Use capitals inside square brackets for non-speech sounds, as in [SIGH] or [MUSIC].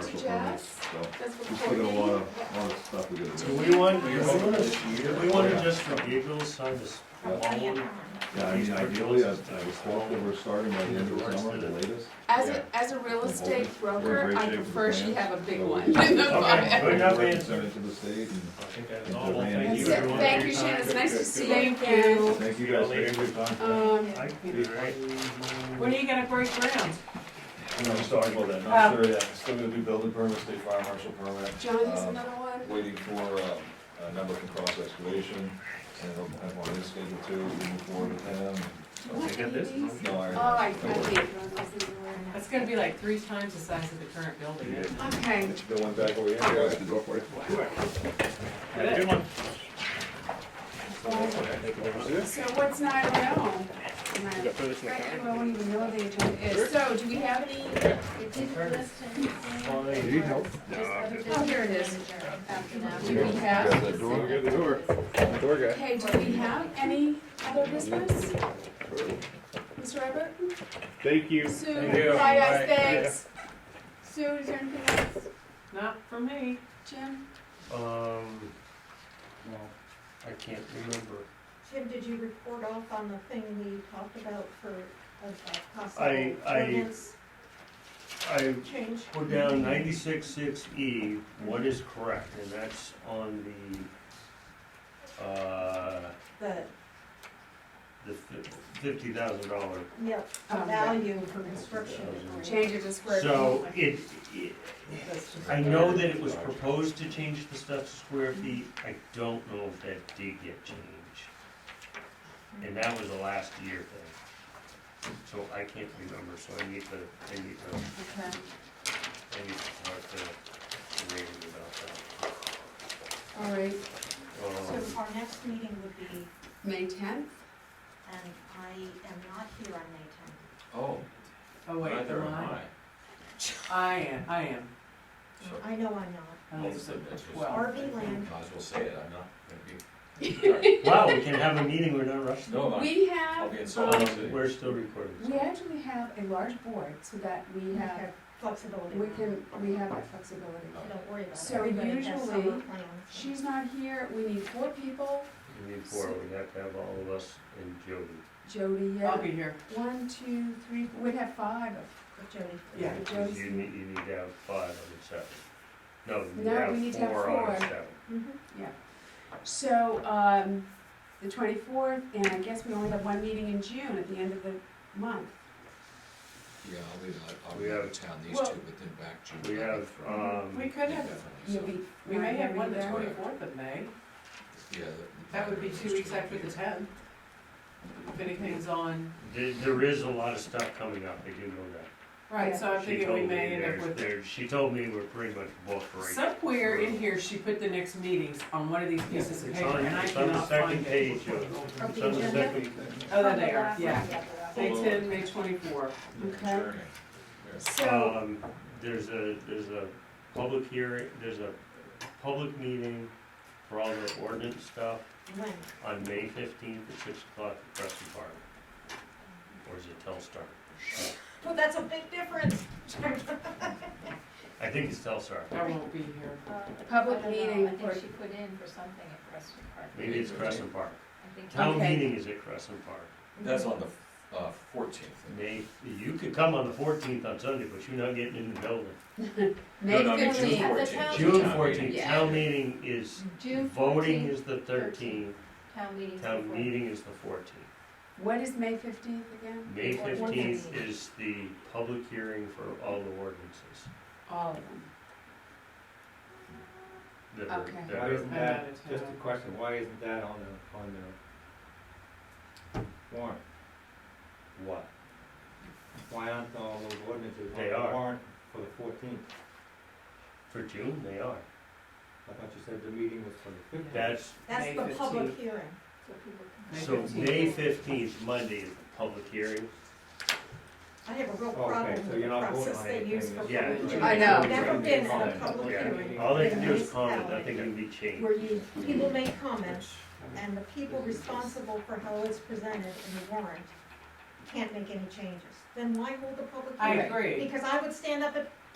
this, so. That's what Just looking at a lot coordinating. of, a lot of stuff we gotta Do do. we want, Yeah. do we want to just for Gabriel's sign this Yeah. long, Yeah, I mean, ideally, I I was hoping we're starting by the end of the summer, the latest. As Yeah. a, as a real estate We're broker, in great I shape with the prefer she plans, have a big so one. we- [LAUGHS] in the Okay. file. Good enough We're answer. sending it to the state, and I think that's all, well, thank That's you. it, everyone, for thank your you, Shannon, it's time. nice to see Good you. thank you luck. guys. Later. Thank you. Um, I can be right. When are you gonna break ground? I'm just talking about Uh, that, Um, not sure yet, still gonna do building permit, state fire marshal permit. John has Um, another one. Waiting for, um, a number can cross excavation, and I'll have one in schedule too, we move forward with him. What get are this? these? No, I. Oh, I, I don't worry. hate those, I see them right now. That's gonna be like three times the size of the current building. isn't it? Okay, The one back over here. Go for it. Have a Good one. so what's nine oh? I don't even know what the agenda is, so do we have any, It didn't list anything. Fine. need help? Oh, here it is. After that. do we have, Door. okay, do we have any other business? Mr. Everett? Thank you. Sue, Thank you. hi guys, Bye. thanks. Sue, is there anything else? Not for me. Jim? Um, no, I can't remember. Jim, did you report off on the thing we talked about for a- a I- possible I- ordinance I change? put down ninety-six six E, what is correct, and that's on the, uh, The, the fifty thousand dollar. yep, the Um, value for construction. debris. Change it to square feet. So it, it- That's just- I know that it was proposed to change the stuff to square feet, I don't know if that did get changed. And uh, that was a last year thing, so I can't remember, so I need to, I need to, Okay. I need to talk to Randy about All right, that. So Um, our next meeting would be, May tenth? and I am not here on May tenth. Oh, Oh, wait, neither am am I? I. I am, I am. Sure. I know I'm not. I was Well, at that's just- twelve. RV land, Might as well say it, I'm not gonna Wow, we can have a meeting, we're not rushing. be, no, I'm, We I'll have, be in Salt Lake um, City. We're still recording. we actually have a large board so that we we have, have flexibility. we can, we have that flexibility. So Don't worry about it. So Everybody has summer usually, plans. She's not here, we need four people, We need four, we have to have all of us and Jody. Jody, yeah, I'll be here. one, two, three, we'd have five. With Jody. Yeah. Jody's You in- need, you need to have five on the seven. No, No, we you need need to to have have four on the four. seven. Mm-hmm. Mhm. So, um, the twenty-fourth, and I guess we only have one meeting in June at the end of the month. Yeah, I'll leave, it. I'll We be out have- of town these two, well, but then back June. We I'll be have, free. um, We could Yeah, have, definitely, You'll so, be. we may have one the there. either. twenty-fourth of May. yeah, the- That would be those two weeks won't after be the here. tenth. If anything's on, there, there is a lot of stuff coming up, I do know that. right, so I'm She thinking we told me may end up there's, with. there, she told me we're pretty much booked right now. Somewhere in here, she put the next meetings on one of these pieces of It's paper, on- and I it's on the cannot second find it. page of, Of it's the on the agenda? second. Oh, there they are, Last one, yeah. but- May ten, May twenty-four. Okay. Journey. Oh, So, Um, there's a, there's a public hearing, there's a public meeting for all the ordinance stuff When? on May fifteenth at six o'clock at Preston Park. Or is it Telstar? Well, that's a big difference. I think it's Telstar. I won't be here. Public meeting I think for- she put in for something at Preston Park. Maybe it's Crescent Park. I think Town Okay. meeting is at Crescent Park. Mm-hmm. That's on the, uh, fourteenth. May, you could come on the fourteenth on Sunday, but you're not getting in the building. May No, no, I mean, June fifteenth, At the 14th. town June town fourteenth, meeting. town meeting is, June voting fourteenth, is the thirteenth, town meeting. town meeting is the fourteenth. what is May fifteenth again? May Or fifteenth ordinance. is the public hearing for all the ordinances All of them. that are, Okay. that Why are, isn't I'm that, out of just town. a question, why isn't that on the, on the warrant? what? Why aren't all those ordinances on They the are. warrant for the fourteenth? For June, they are. I thought you said the meeting was for the fifteenth. That's, That's May the public 15th. hearing, so people May can. so 15th. May fifteenth, Monday is the public hearing. I have a real Okay, problem so with the you're not voting process on they anything use for. that's- Yeah. public it's- hearing. I know. I've Never been Yeah. at a public Yeah. hearing. All they in can a do is comment, municipality nothing can be changed. Where you, people make comments, Mm-hmm. and the people responsible for how it's presented in the warrant can't make any changes. Then why hold the public I hearing? agree. Because I would stand up at